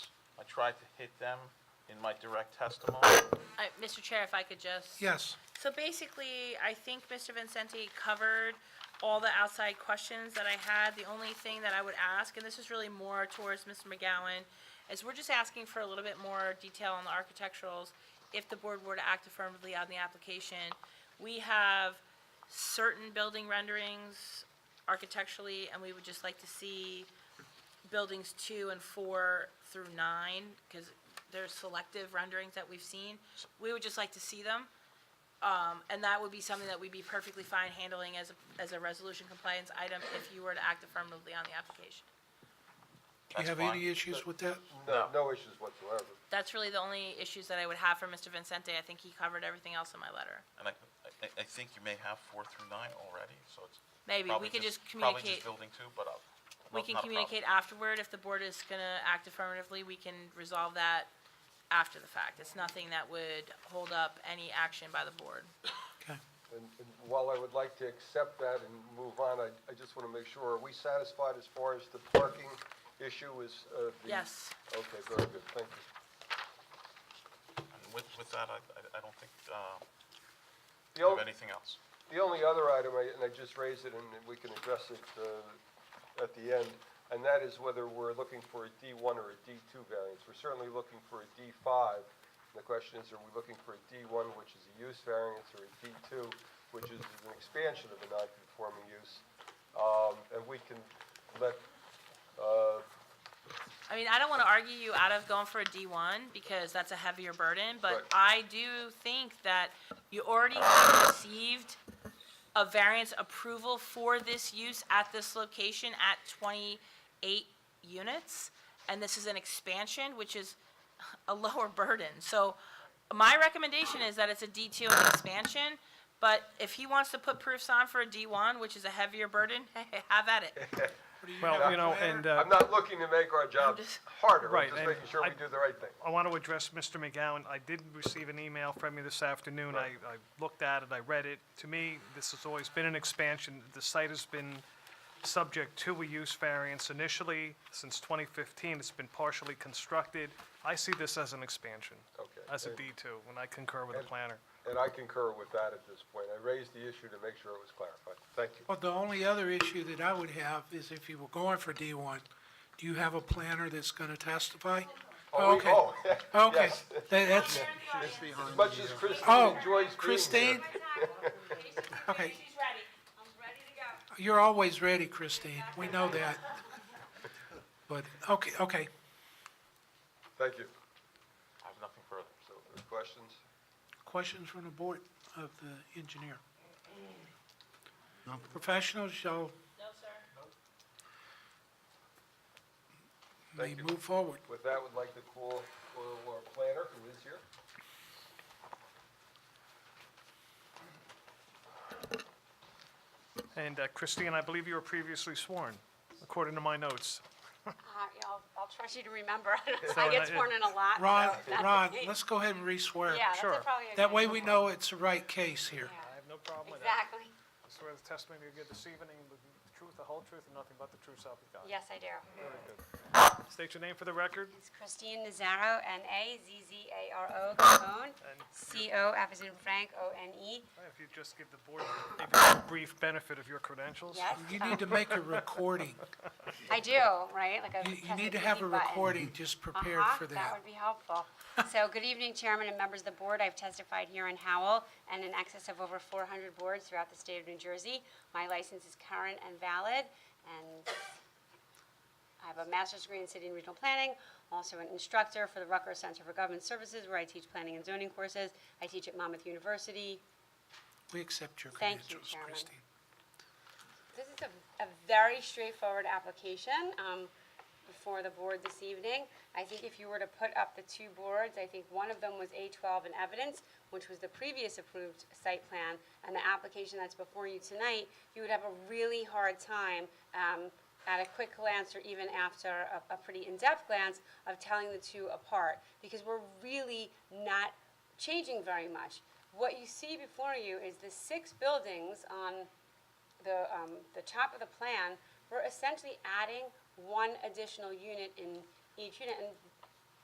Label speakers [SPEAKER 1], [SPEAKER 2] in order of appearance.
[SPEAKER 1] tried to hit them in my direct testimony.
[SPEAKER 2] Uh, Mr. Chair, if I could just.
[SPEAKER 3] Yes.
[SPEAKER 2] So basically, I think Mr. Vincenti covered all the outside questions that I had. The only thing that I would ask, and this is really more towards Mr. McGowan, is we're just asking for a little bit more detail on the architecturals if the board were to act affirmatively on the application. We have certain building renderings architecturally, and we would just like to see buildings two and four through nine, because there's selective renderings that we've seen. We would just like to see them. Um, and that would be something that we'd be perfectly fine handling as, a as a resolution compliance item if you were to act affirmatively on the application.
[SPEAKER 3] Do you
[SPEAKER 1] That's
[SPEAKER 3] have any
[SPEAKER 1] fine.
[SPEAKER 3] issues with that?
[SPEAKER 4] No, no issues whatsoever.
[SPEAKER 2] That's really the only issues that I would have for Mr. Vincente. I think he covered everything else in my letter.
[SPEAKER 1] And I, I, I think you may have four through nine already, so it's.
[SPEAKER 2] Maybe,
[SPEAKER 1] probably
[SPEAKER 2] we could just
[SPEAKER 1] Probably just
[SPEAKER 2] communicate,
[SPEAKER 1] building two, but I'll. no,
[SPEAKER 2] we can
[SPEAKER 1] not a problem.
[SPEAKER 2] communicate afterward. If the board is gonna act affirmatively, we can resolve that after the fact. It's nothing that would hold up any action by the board.
[SPEAKER 3] Okay.
[SPEAKER 4] And and while I would like to accept that and move on, I, I just want to make sure, are we satisfied as far as the parking issue is, uh, the?
[SPEAKER 2] Yes.
[SPEAKER 4] Okay, very good, thank you.
[SPEAKER 1] And with, with that, I, I- I don't think, uh,
[SPEAKER 4] The
[SPEAKER 1] we have
[SPEAKER 4] on-
[SPEAKER 1] anything else.
[SPEAKER 4] The only other item, I- and I just raised it, and we can address it uh, at the end, and that is whether we're looking for a D1 or a D2 variance. We're certainly looking for a D5. The question is, are we looking for a D1, which is a use variance, or a D2, which is an expansion of a non-conforming use? Um, And we can let, uh,
[SPEAKER 2] I mean, I don't want to argue you out of going for a D1 because that's a heavier burden, but
[SPEAKER 4] Right.
[SPEAKER 2] I do think that you already have received a variance approval for this use at this location at 28 units, and this is an expansion, which is a lower burden. So my recommendation is that it's a D2 and an expansion, but if he wants to put proofs on for a D1, which is a heavier burden, have at it.
[SPEAKER 5] Well, you know, and uh,
[SPEAKER 4] I'm not looking to make our job
[SPEAKER 2] just-
[SPEAKER 4] harder, I'm
[SPEAKER 5] Right,
[SPEAKER 4] just
[SPEAKER 5] and
[SPEAKER 4] making sure we
[SPEAKER 5] I-
[SPEAKER 4] do the right thing.
[SPEAKER 5] I want to address Mr. McGowan. I did receive an email from you this afternoon. I, I looked at it, I read it. To me, this has always been an expansion. The site has been subject to a use variance initially. Since 2015, it's been partially constructed. I see this as an expansion,
[SPEAKER 4] Okay.
[SPEAKER 5] as a
[SPEAKER 4] And-
[SPEAKER 5] D2, and I concur with the
[SPEAKER 4] And-
[SPEAKER 5] planner.
[SPEAKER 4] And I concur with that at this point. I raised the issue to make sure it was clarified. Thank you.
[SPEAKER 3] Well, the only other issue that I would have is if you were going for D1, do you have a planner that's going to testify?
[SPEAKER 4] Oh, we-
[SPEAKER 3] Okay.
[SPEAKER 4] oh,
[SPEAKER 3] Okay,
[SPEAKER 4] yes.
[SPEAKER 3] Tha- that's,
[SPEAKER 4] As much as
[SPEAKER 3] Oh,
[SPEAKER 4] Christine enjoys being
[SPEAKER 3] Christine,
[SPEAKER 4] here.
[SPEAKER 3] Okay.
[SPEAKER 6] She's ready. I'm ready to go.
[SPEAKER 3] you're always ready, Christine, we know that. But, okay, okay,
[SPEAKER 4] Thank you.
[SPEAKER 1] I have nothing further.
[SPEAKER 4] So, any questions?
[SPEAKER 3] questions from the board of the engineer? Professionals shall
[SPEAKER 2] No, sir.
[SPEAKER 3] may
[SPEAKER 4] Thank you.
[SPEAKER 3] move forward.
[SPEAKER 4] With that, would like to call, call our planner, who is here.
[SPEAKER 5] And uh, Christine, I believe you were previously sworn, according to my notes.
[SPEAKER 6] Uh, yeah, I'll, I'll trust you to remember.
[SPEAKER 5] So,
[SPEAKER 6] I
[SPEAKER 5] uh,
[SPEAKER 6] get sworn in a lot. so
[SPEAKER 3] Ron,
[SPEAKER 6] that's-
[SPEAKER 3] Ron, let's go ahead and re-swear.
[SPEAKER 6] Yeah, that's
[SPEAKER 5] Sure.
[SPEAKER 6] a- probably a
[SPEAKER 3] That
[SPEAKER 6] good
[SPEAKER 3] way we
[SPEAKER 6] one.
[SPEAKER 3] know it's the right case here.
[SPEAKER 6] Yeah,
[SPEAKER 5] have no problem
[SPEAKER 6] Exactly.
[SPEAKER 5] I swear the testimony you give this evening will be the truth, the whole truth, and nothing but the truth, so help you God.
[SPEAKER 6] Yes, I do.
[SPEAKER 5] State your name for the record.
[SPEAKER 6] It's Christine Nazaro, N-A-Z-Z-A-R-O, Capone, C-O, F as in Frank, E. O-N-E.
[SPEAKER 5] If you just give the board a brief benefit of your credentials.
[SPEAKER 6] Yes,
[SPEAKER 3] You
[SPEAKER 6] um,
[SPEAKER 3] need to make a recording.
[SPEAKER 6] I do, right? Like a.
[SPEAKER 3] You, you
[SPEAKER 6] press
[SPEAKER 3] need to
[SPEAKER 6] the
[SPEAKER 3] have a
[SPEAKER 6] delete button.
[SPEAKER 3] recording just prepared
[SPEAKER 6] Uh-huh,
[SPEAKER 3] for
[SPEAKER 6] That
[SPEAKER 3] that.
[SPEAKER 6] would be helpful. So, good evening, Chairman and members of the board. I've testified here in Howell and in excess of over 400 boards throughout the state of New Jersey. My license is current and valid, and I have a master's degree in city and regional planning, also an instructor for the Rucker Center for Government Services, where I teach planning and zoning courses. I teach at Monmouth University.
[SPEAKER 3] We accept your
[SPEAKER 6] Thank you,
[SPEAKER 3] credentials,
[SPEAKER 6] Chairman.
[SPEAKER 3] Christine.
[SPEAKER 6] This is a, a very straightforward application, um, before the board this evening. I think if you were to put up the two boards, I think one of them was A twelve in evidence, which was the previous approved site plan, and the application that's before you tonight, you would have a really hard time, um, at a quick glance or even after a, a pretty in-depth glance of telling the two apart, because we're really not changing very much. What you see before you is the six buildings on the, um, the top of the plan, we're essentially adding one additional unit in each unit. And